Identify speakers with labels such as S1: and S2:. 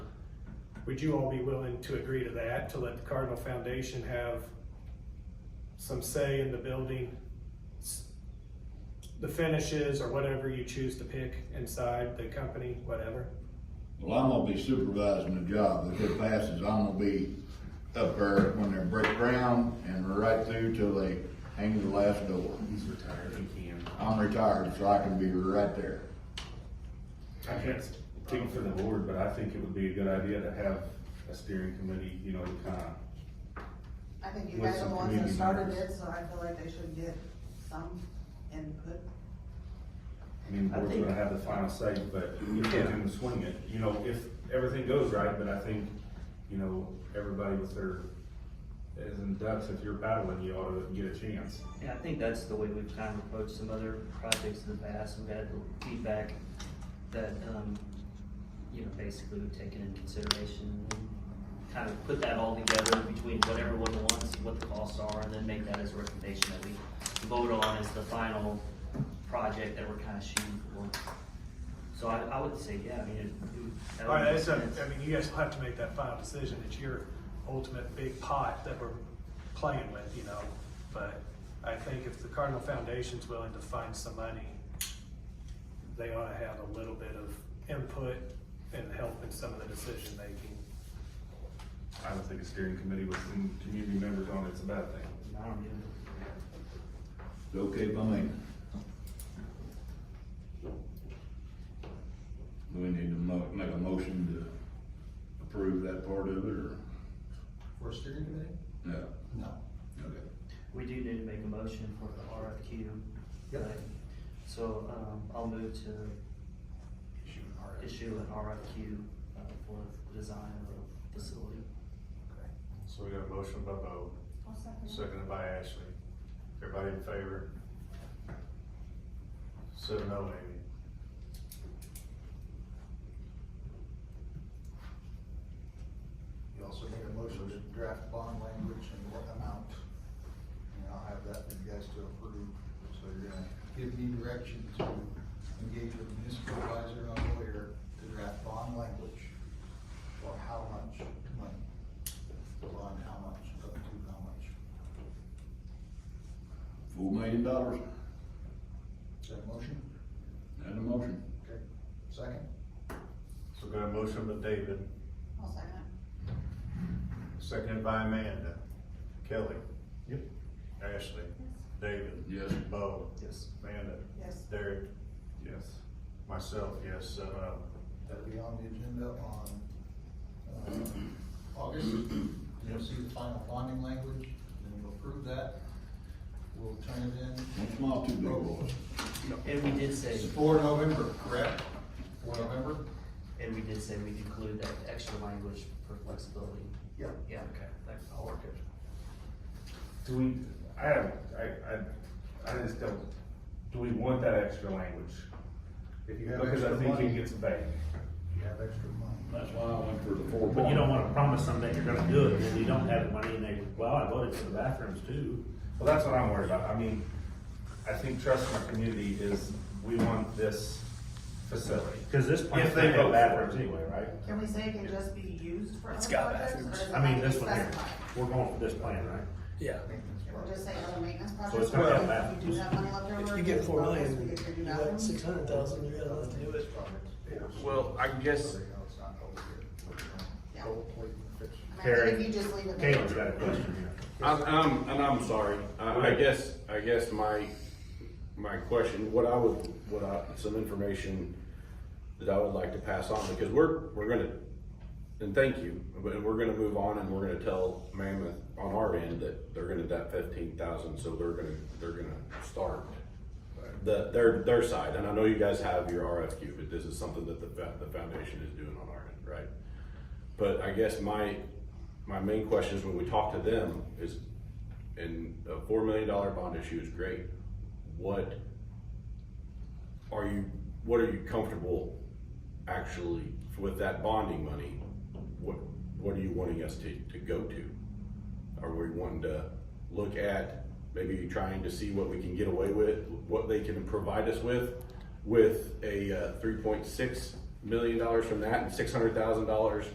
S1: Would you all be willing to agree to that, to let the Cardinal Foundation have some say in the building? s- The finishes or whatever you choose to pick inside the company, whatever?
S2: Well, I'm gonna be supervising the job, if it passes, I'm gonna be up there when they break ground and right through till they hang the last door.
S3: He's retired, he can.
S2: I'm retired, so I can be right there.
S3: I can't speak for the board, but I think it would be a good idea to have a steering committee, you know, to kinda,
S4: I think you
S3: With
S4: guys are
S3: some
S4: the ones that
S3: community
S4: started
S3: members.
S4: it, so I feel like they should get some input.
S3: I mean, the
S5: I
S3: board's
S5: think-
S3: gonna have the final say, but you can swing it, you know, if everything goes right, but I think, you know, everybody with their, as in ducks, if you're battling, you ought to get a chance.
S5: Yeah, I think that's the way we've kind of approached some other projects in the past. We've had the feedback that, um, you know, basically we've taken into consideration and kind of put that all together between what everyone wants, what the costs are, and then make that as a recommendation that we vote on as the final project that we're kind of shooting for. So I, I would say, yeah, I mean, it- it. that
S1: All right,
S5: would
S1: that's,
S5: make
S1: up-
S5: sense.
S1: I mean, you guys will have to make that final decision, it's your ultimate big pot that we're playing with, you know? But I think if the Cardinal Foundation's willing to find some money, they ought to have a little bit of input and help in some of the decision making.
S3: I don't think a steering committee with some community members on it's a bad thing.
S5: I don't get it.
S2: It's okay by me. Do we need to mo- make a motion to approve that part of it, or?
S6: For a steering committee?
S2: No,
S6: No.
S2: okay.
S5: We do need to make a motion for the RFQ.
S6: Yep.
S5: right? So, um, I'll move to
S6: Issue an RFP.
S5: issue an RFQ uh, for the design of a facility.
S7: So we got a motion by Bo, seconded by Ashley. Everybody in favor? Seven oh, Amy.
S6: You also need a motion to draft bond language and what amount. And I'll have that for you guys to approve, so you're gonna give me direction to engage with municipal advisor on lawyer to draft bond language for how much money, the bond, how much, up to how much.
S2: Four million dollars,
S6: Is that a motion?
S2: and a motion.
S6: Okay. Second?
S7: So we got a motion by David,
S4: I'll second it.
S7: seconded by Amanda. Kelly?
S3: Yep.
S7: Ashley? David?
S2: Yes.
S7: Bo?
S5: Yes.
S7: Amanda?
S4: Yes.
S7: Derek?
S3: Yes.
S7: Myself, yes, seven oh.
S6: That'll be on the agenda on, uh, August. You'll see the final bonding language, then you'll approve that. We'll turn it in.
S2: One small, two big boys.
S5: And we did say,
S6: For November, correct? For November?
S5: and we did say we include that extra language for flexibility.
S6: Yeah.
S5: Yeah, okay, thanks.
S6: I'll work it.
S3: Do we, I have, I, I, I just don't, do we want that extra language?
S6: If you have
S3: Because I
S6: extra
S3: think it
S6: money,
S3: gets vague.
S6: you have extra money.
S2: That's why I went for the four.
S8: But you don't wanna promise them that you're gonna do it, and you don't have the money, and they, well, I voted for the bathrooms too.
S3: Well, that's what I'm worried about. I mean, I think trust in our community is, we want this facility.
S8: Cause this plan.
S3: If they vote bathrooms anyway, right?
S4: Can we say it can just be used for
S8: It's
S4: other
S8: got
S4: projects?
S8: bathrooms.
S4: or does it
S8: I mean,
S4: have to
S8: this
S4: be
S8: one here,
S4: specified?
S8: we're going for this plan, right?
S9: Yeah,
S6: Maintenance
S4: Or
S6: budget.
S4: just say other maintenance
S8: it's
S4: projects?
S8: gonna have
S4: If
S8: bathrooms.
S4: You do have money left over.
S9: if you get
S4: it's
S9: four
S4: bonus,
S9: million,
S4: we get your new
S9: you got
S4: bathrooms.
S9: six hundred thousand, you're gonna have to do it.
S6: Yes.
S9: Well, I guess-
S6: So they know it's not over
S4: Yeah.
S6: here. Gold plate and fix it.
S4: I mean, I think
S3: Carrie,
S4: If you just leave it. there.
S3: Caleb's got a question here.
S10: I'm, I'm- and I'm sorry, I, I guess, I guess my, my question, what I would, what I, some information that I would like to pass on, because we're, we're gonna, and thank you, but we're gonna move on and we're gonna tell Mammoth on our end that they're gonna debt fifteen thousand, so they're gonna, they're gonna start the, their, their side, and I know you guys have your RFQ, but this is something that the, fa- the foundation is doing on our end, right? But I guess my, my main question is when we talk to them is, and a four million dollar bond issue is great. What are you, what are you comfortable actually with that bonding money? What, what are you wanting us to, to go to? Are we wanting to look at maybe trying to see what we can get away with, what they can provide us with? With a, uh, three point six million dollars from that and six hundred thousand dollars